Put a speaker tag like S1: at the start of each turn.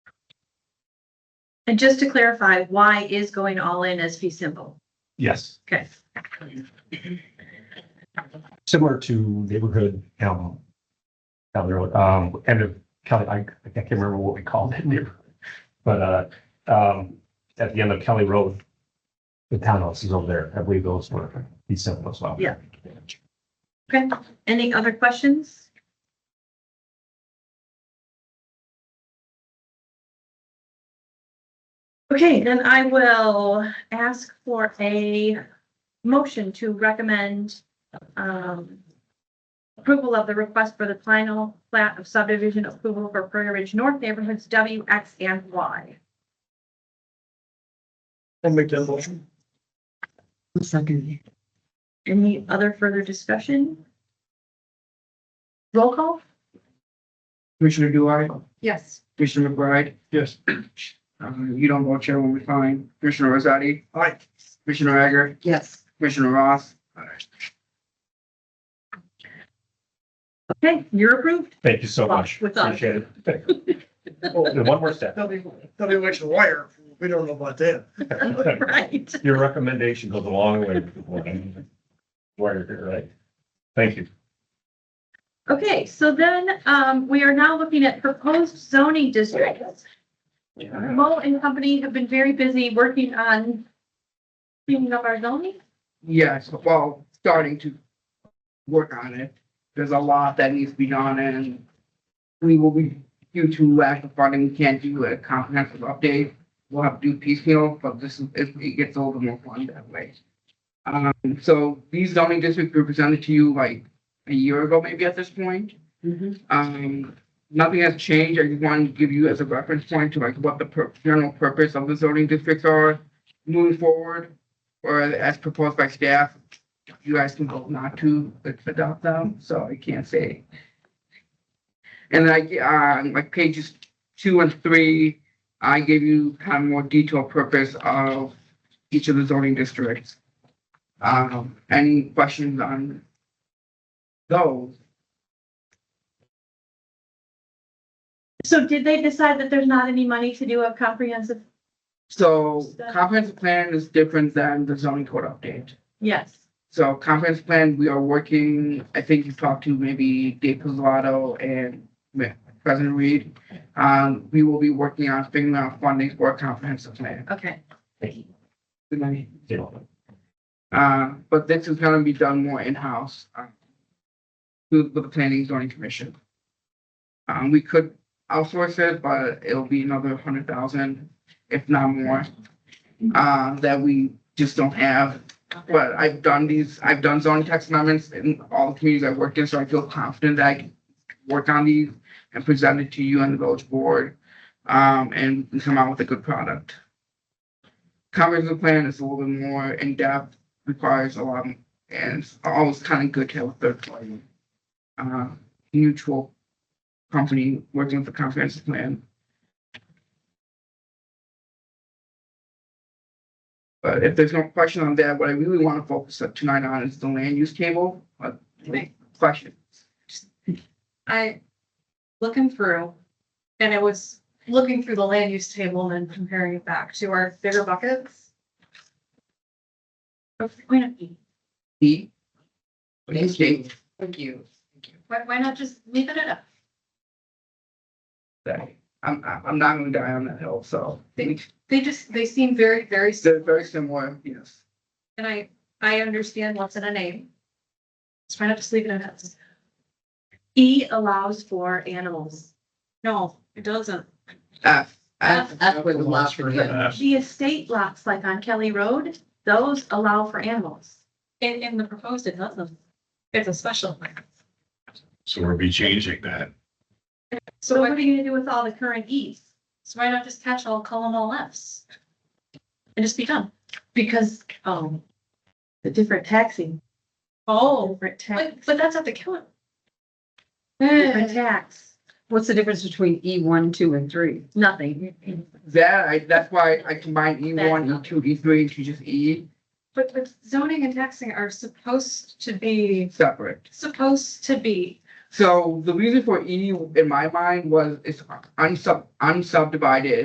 S1: And just to clarify, why is going all in as fee simple?
S2: Yes,
S1: Okay.
S2: similar to neighborhood, um, down the road, um, end of Kelly, I, I can't remember what we called it neighborhood. But, uh, um, at the end of Kelly Road, the townhouses over there, I believe those were, be simple as well.
S1: Yeah. Okay, any other questions? Okay, then I will ask for a motion to recommend um, approval of the request for the final plat of subdivision approval for Prairie Ridge North neighborhoods W, X, and Y.
S3: And make that motion.
S4: Second.
S1: Any other further discussion? Roll call?
S4: Commissioner Dwyer,
S1: Yes.
S4: Commissioner McBride,
S3: Yes.
S4: um, you don't vote, Chairman Fine, Commissioner Rosati,
S3: Aye.
S4: Commissioner Egger. Yes. Commissioner Ross.
S1: Okay, you're approved.
S2: Thank you so much.
S1: With us.
S2: Appreciate it. Oh, One more step.
S3: They'll be, they'll be like the wire. We don't know about that.
S1: Right.
S2: Your recommendation goes a long way. before I'm Wired, here, right? Thank you.
S1: Okay, so then, um, we are now looking at proposed zoning districts. Mo and company have been very busy working on cleaning up our zoning.
S4: Yes, well, starting to work on it. There's a lot that needs to be done and we will be, due to lack of funding, we can't do a comprehensive update. We'll have to do piecemeal, but this is, it it gets a little more fun that way. Um, so these zoning districts were presented to you like a year ago, maybe at this point. Um, nothing has changed. I just wanted to give you as a reference point to like what the pur- general purpose of the zoning districts are moving forward. Or as proposed by staff, you guys can vote not to adopt them, so I can't say. And I, uh, like pages two and three, I give you kind of more detailed purpose of each of the zoning districts. Um, any questions on those?
S1: So did they decide that there's not any money to do a comprehensive?
S4: So
S1: Stuff.
S4: comprehensive plan is different than the zoning code update.
S1: Yes.
S4: So comprehensive plan, we are working, I think you talked to maybe Dave Pizzolato and Ma- President Reed. Um, we will be working on figuring out funding for a comprehensive plan.
S1: Okay.
S4: Good night.
S2: Yeah.
S4: Uh, but this is gonna be done more in-house. uh, With with the planning and zoning commission. Um, we could outsource it, but it'll be another hundred thousand, if not more. Uh, that we just don't have, but I've done these, I've done zoning text amendments in all the communities I've worked in, so I feel confident that I can. Work on these and present it to you and the village board, um, and come out with a good product. Comprehensive plan is a little bit more in-depth requires a lot, of- and it's always kind of good to have a third party. Uh, mutual company working with the comprehensive plan. But if there's no question on that, what I really want to focus on tonight on is the land use table, but
S5: Right.
S4: question.
S5: I, looking through, and I was looking through the land use table and then comparing it back to our bigger buckets. Why not,
S4: E. Land table.
S5: thank you, thank you, why, why not just leave it at a
S4: I'm, I'm I'm not gonna die on that hill, so.
S5: They just, they seem very, very, sim-
S4: They're very similar, yes.
S5: and I, I understand what's in a name. So why not just leave it at that?
S1: E allows for animals.
S5: No, it doesn't.
S4: F.
S5: F-
S3: F was the last for
S2: F.
S1: The estate lots like on Kelly Road, those allow for animals.
S5: In, in the proposed, it doesn't. It's a special.
S6: So we'll be changing that.
S1: So
S5: So
S1: what are
S5: why,
S1: you gonna do with all the current E's?
S5: so why not just catch all, call them all Fs? And just be done.
S1: Because, um, the different taxing,
S5: Oh.
S1: different tax,
S5: But, but that's at the killer.
S1: different tax,
S7: What's the difference between E one, two, and three?
S1: nothing.
S4: That, I, that's why I combined E one, E
S1: That's-
S4: two, E three into just E
S5: But, but zoning and taxing are supposed to be,
S4: separate.
S5: supposed to be,
S4: So the reason for E in my mind was it's unsub, unsubdivided